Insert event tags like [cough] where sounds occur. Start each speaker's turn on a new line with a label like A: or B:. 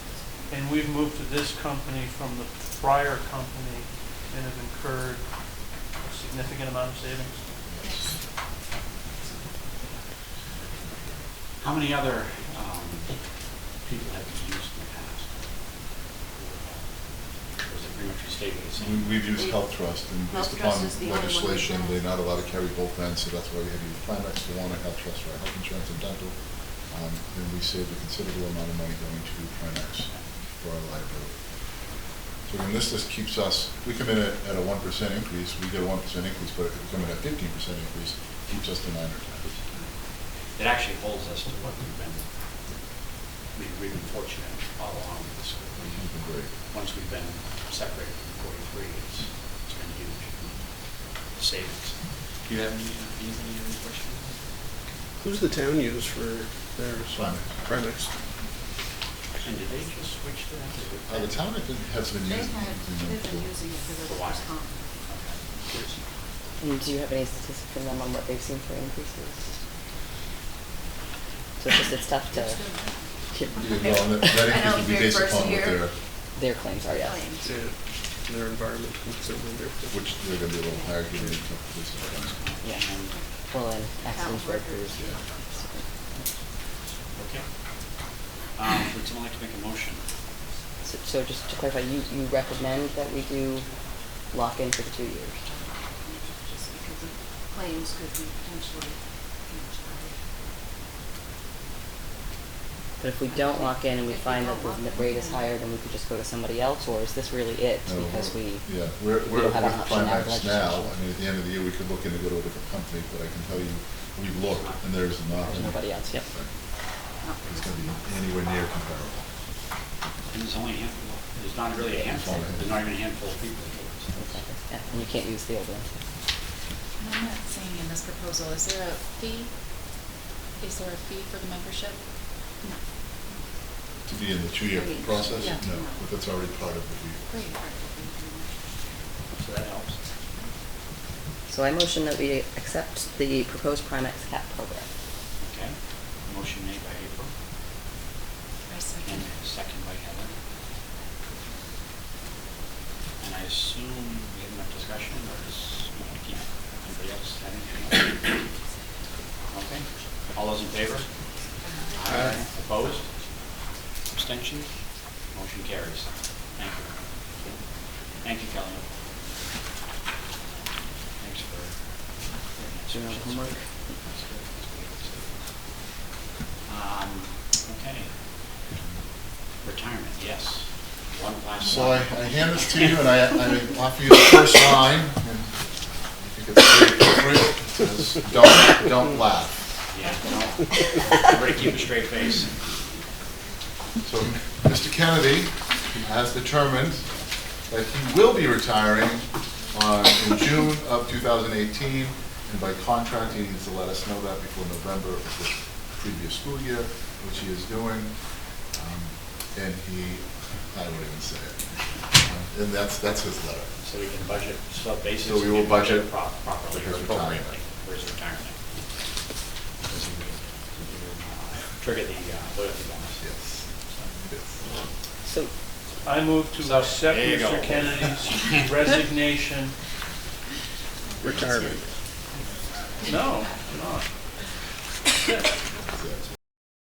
A: And we've moved to this company from the prior company and have incurred a significant amount of savings.
B: How many other um, people have you used in the past? Or is it pretty much stayed the same?
C: We- We've used Health Trust, and
D: Health
C: based
D: Trust
C: upon
D: is the only one we've
C: legislation,
D: done.
C: they're not allowed to carry both ends, so that's why we had to use Primex for one and Health Trust for our health insurance and dental. Um, And we saved a considerable amount of money going to Primex for our liability. So again, this just keeps us, we come in at, at a one percent increase, we get a one percent increase, but if we come in at fifteen percent increase, it keeps us to nine or ten.
B: It actually holds us to what we've been, we- we've been fortunate all along with this.
C: It's been great.
B: Once we've been separated from 43, it's it's been huge savings. Do you have any, any other questions?
E: Who's the town use for their
C: Primex.
E: Primex?
B: And did they just switch to
C: Uh,
B: that?
C: the town, I think, has been
D: They
C: using.
D: had, they've been
C: for-
D: using it for
B: For a
D: their
B: while.
D: workers' comp.
B: Okay.
F: And Do you have any statistics from them on what they've seen for increases? So it's just, it's tough to,
D: It's good.
C: Yeah, well, that- that
D: [laughs] I
C: increase
D: know,
C: would be
D: very
C: based
D: first
C: upon what
D: year.
C: their,
F: their claims are, yes.
D: Claims.
E: Yeah, their environment considerably different.
C: which they're gonna be a little higher given the this is.
F: Yeah. Well, and accident
D: Account
F: workers.
D: workers.
B: Okay. Um, Would someone like to make a motion?
F: So- So just to clarify, you, you recommend that we do lock in for the two years?
D: Just because the Claims could be potentially much higher.
F: But if we don't lock in and we
D: If we
F: find that
D: don't
F: the
D: lock
F: rate
D: in,
F: is
D: yeah.
F: higher, then we could just go to somebody else, or is this really it?
C: No,
F: Because we,
C: Yeah, we're,
F: we
C: we're
F: don't have an
C: with
F: option out of
C: Primex now,
F: legislation.
C: I mean, at the end of the year, we could look into go to a different company, but I can tell you, we looked, and there's
F: there's
C: nothing.
F: nobody else, yep.
D: Not
C: It's gonna be anywhere near comparable.
B: And there's only a handful, there's not really a handful, there's not even a handful of people.
F: Exactly. Yeah, And you can't use the old one.
G: And I'm not seeing in this proposal, is there a fee? Is there a fee for the membership?
D: No.
C: To be in the two-year
D: Three.
C: process,
D: Yeah.
C: no, but that's already part of the,
G: Great.
B: So that helps.
F: So I motion that we accept the proposed Primex cap program.
B: Okay. Motion made by April
G: I
B: and
G: second.
B: second by Heather. And I assume we have enough discussion or is, keep anybody else have anything? else? Okay. All those in favor?
C: Aye.
B: Opposed? Abstentions? Motion carries. Thank you. Thank you, Kelly. Thanks for.
F: Doing our homework.
B: That's good, that's good, that's good. Um, okay. Retirement, yes. One last.
C: So I,
B: one.
C: I hand this to you, and I,
B: [laughs]
C: I offer you the first line, and you think it's very appropriate, it says, don't, don't laugh.
B: Yeah,
C: [laughs]
B: no. Everybody keep a straight face.
C: So Mr. Kennedy has determined that he will be retiring on, in June of 2018, and by contract, he needs to let us know that before November of the previous school year, which he is doing. Um, And he, I won't even say it. And that's, that's his letter.
B: So we can budget, so basically.
C: So we will budget
B: pro-
C: for
B: Properly,
C: his
B: appropriately,
C: retirement.
B: for his retirement. Because he will, he will, uh, Trigger the uh, loyalty bonus.
C: Yes. Yes.
F: So
A: I move
B: So,
A: to accept
B: there you go.
A: Mr. Kennedy's resignation.
E: Retirement.
A: No, I'm not.
C: Yes.